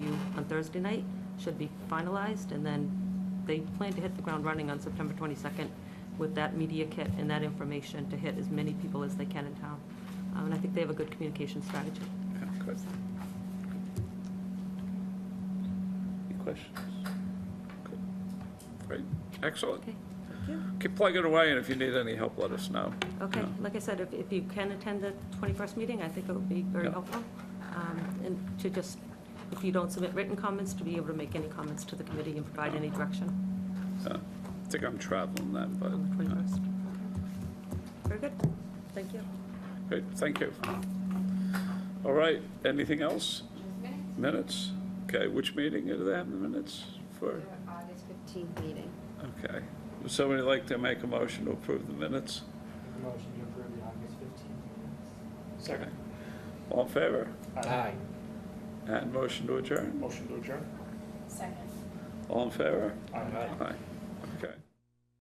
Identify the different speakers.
Speaker 1: Thursday night, should be finalized, and then they plan to hit the ground running on September 22nd with that media kit and that information to hit as many people as they can in town. Um, And I think they have a good communication strategy.
Speaker 2: Good.
Speaker 1: So,
Speaker 2: Any questions? Good. Great, excellent.
Speaker 1: Okay, thank you.
Speaker 2: Keep plugging away, and if you need any help, let us know.
Speaker 1: Okay,
Speaker 2: Yeah.
Speaker 1: like I said, if, if you can attend the 21st meeting, I think it would be very
Speaker 2: Yeah.
Speaker 1: helpful. Um, And to just, if you don't submit written comments, to be able to make any comments to the committee and provide any direction
Speaker 2: Uh, I think I'm traveling then, but,
Speaker 1: on the
Speaker 2: uh,
Speaker 1: 21st. Very good, thank you.
Speaker 2: great, thank you. All right, anything else? Minutes? Okay, which meeting do they have the minutes for?
Speaker 3: August 15th meeting.
Speaker 2: Okay. Would somebody like to make a motion to approve the minutes?
Speaker 4: Motion to approve the August 15th
Speaker 2: Second. All in favor?
Speaker 4: minutes.
Speaker 5: Aye.
Speaker 2: And motion to adjourn?
Speaker 4: Motion to adjourn?
Speaker 3: Second.
Speaker 2: All in favor?
Speaker 4: Aye.
Speaker 2: Aye.